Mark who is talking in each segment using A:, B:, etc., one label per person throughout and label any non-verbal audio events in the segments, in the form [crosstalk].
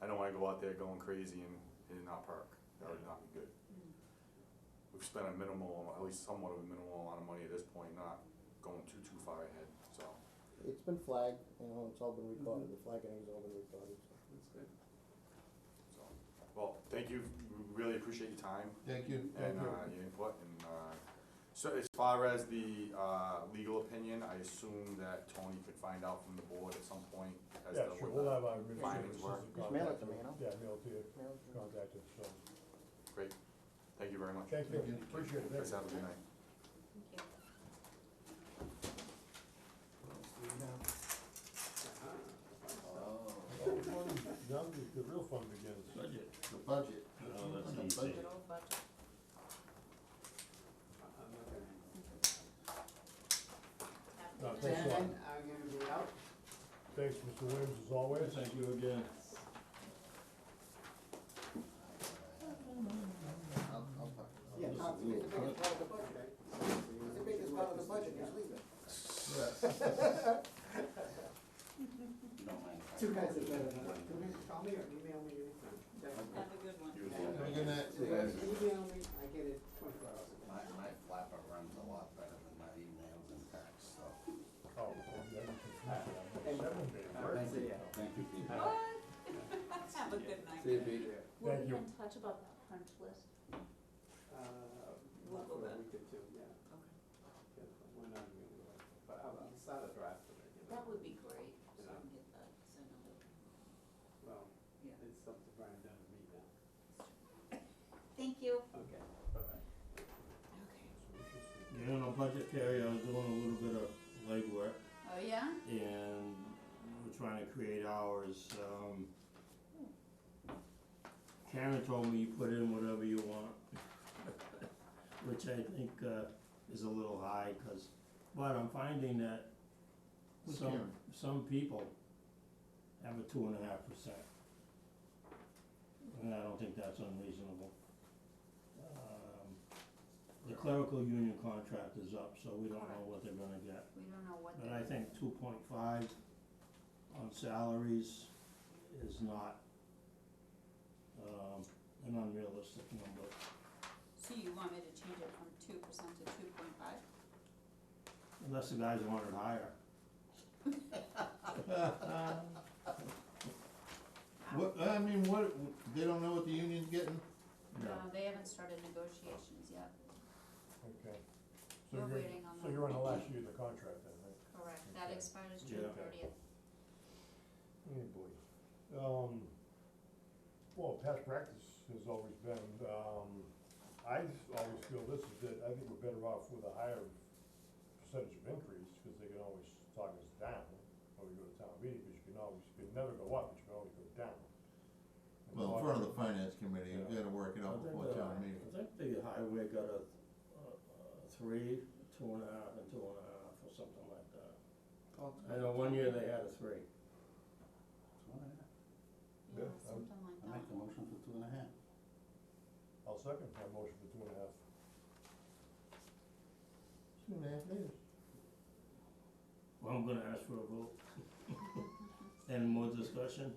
A: go out there going crazy and, and not park. That would not be good. We've spent a minimal, at least somewhat of a minimal amount of money at this point, not going too, too far ahead, so.
B: It's been flagged, you know, it's all been recorded, the flagging's all been recorded,
A: so.
B: so.
A: Well, thank you, We really appreciate your time
C: Thank you.
A: and, uh, your input, and, uh, so as far as the, uh, legal opinion, I assume that Tony could find out from the board at some point as to
D: Yeah, sure, we'll
A: what
D: have uh, our
A: findings
D: administrative
A: were.
D: assistant
B: Just mail it
D: contact
B: to me, you know?
D: Yeah, mail it to you,
B: Mail it to me.
D: contact us, so,
A: the- Great, thank you very much.
D: thank
C: Thank you.
D: you, appreciate it,
A: Guys,
D: thank you.
A: have a good night.
D: Now, the- the real fun begins.
C: Budget. The budget.
E: Oh, that's
C: The
E: easy.
C: budget.
D: No, thanks a lot.
F: Gentlemen, I'm gonna be out.
D: Thanks, Mr. Williams, as always.
E: Thank you again.
C: I'll, I'll talk.
F: Yeah, Tom's the biggest part of the budget, right? The biggest part of the budget is legal. Two guys are better than one. Can you call me or email me anything? Definitely.
G: Have a good one.
C: Have a good night.
F: So guys, email me, I get it twenty-four hours a day.
H: My, my flapper runs a lot better than my emails and texts, so.
D: Oh, yeah, you can- Seven days.
H: Thank you. Thank you, Pete.
G: Have a good night.
I: We'll
D: Thank
I: be
D: you.
I: in touch about that punch list.
F: Uh,
G: We'll
F: not
G: go
F: for a
G: back.
F: week or two, yeah. Yeah, We're not gonna do it. But I'll, I'll start a draft of it, you
G: That
F: know.
G: would be great, so I can get that sent out.
F: Well,
G: Yeah.
F: it's something Brian done to me now.
G: Thank you.
F: Okay, bye-bye.
G: Okay.
E: You know, on budget Terry, I was doing a little bit of legwork
G: Oh, yeah?
E: and we're trying to create ours, um. Karen told me you put in whatever you want, [laughs] which I think, uh, is a little high, cause, but I'm finding that
C: Who's
E: some,
C: Karen?
E: some people have a two and a half percent. And I don't think that's unreasonable. Um, the clerical union contract is up, so we don't know what they're gonna get.
G: We don't know what.
E: But I think two point five on salaries is not, um, an unrealistic number.
G: So you want me to change it from two percent to two point five?
E: Unless the guys want it [laughs] higher.
C: What, I mean, what, they don't know what the union's getting?
G: No, they haven't started negotiations yet,
D: Okay. So
G: We're
D: you're-
G: waiting on
D: So
G: that.
D: you're on the last year of the contract then, right?
G: correct? That
D: Okay.
G: expires June
E: Yeah.
G: thirtieth.
D: Oh boy. Um, well, past practice has always been, um, I just always feel this is that, I think we're better off with a higher percentage of increase, cause they can always talk us down when we go to town meeting, because you can always, you can never go up, but you can always go down. And
C: Well, in
D: talk-
C: front of the finance committee, you gotta work it
E: I
C: out
E: think
C: before
E: the-
C: town meeting.
E: I think the highway got a, a, a three, two and a half, and two and a half, or something like that. I know one year they had a three.
G: Yeah,
D: Yeah, I would-
G: something like
H: I
G: that.
H: make the motion for two and a half.
D: I'll second my motion for two and a half.
C: Two and a half days.
E: Well, I'm gonna ask for a vote. [laughs] Any more discussion?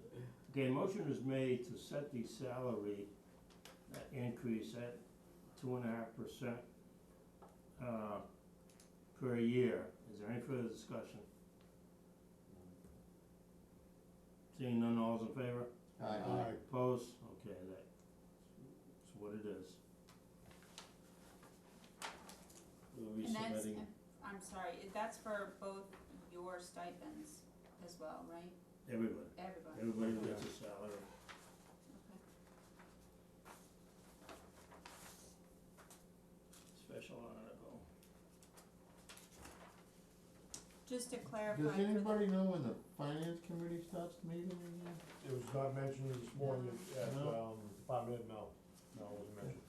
E: Okay, motion is made to set the salary uh, increase at two and a half percent, uh, per year. Is there any further discussion? Seeing none, all's in favor?
C: Aye.
E: Opposed? Okay, that, that's what it is. We'll be
G: And that's,
E: submitting,
G: I'm sorry, that's for both your stipends as well, right?
E: everybody,
G: Everybody.
E: everybody gets a salary. Special article.
G: Just to clarify.
C: Does
G: for the-
C: anybody know when the finance committee starts meeting again?
D: It was not mentioned this morning at,
C: No.
D: um, department, no, no, it wasn't mentioned.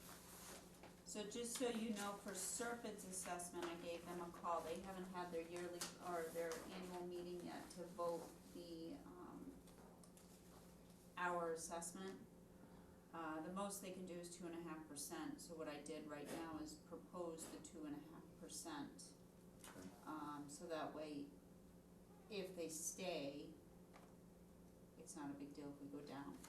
G: So just so you know, for Serpents assessment, I gave them a call, they haven't had their yearly, or their annual meeting yet to vote the, um, our assessment. Uh, the most they can do is two and a half percent, so what I did right now is propose the two and a half percent.
A: Okay.
G: Um, so that way, if they stay, it's not a big deal if we go down.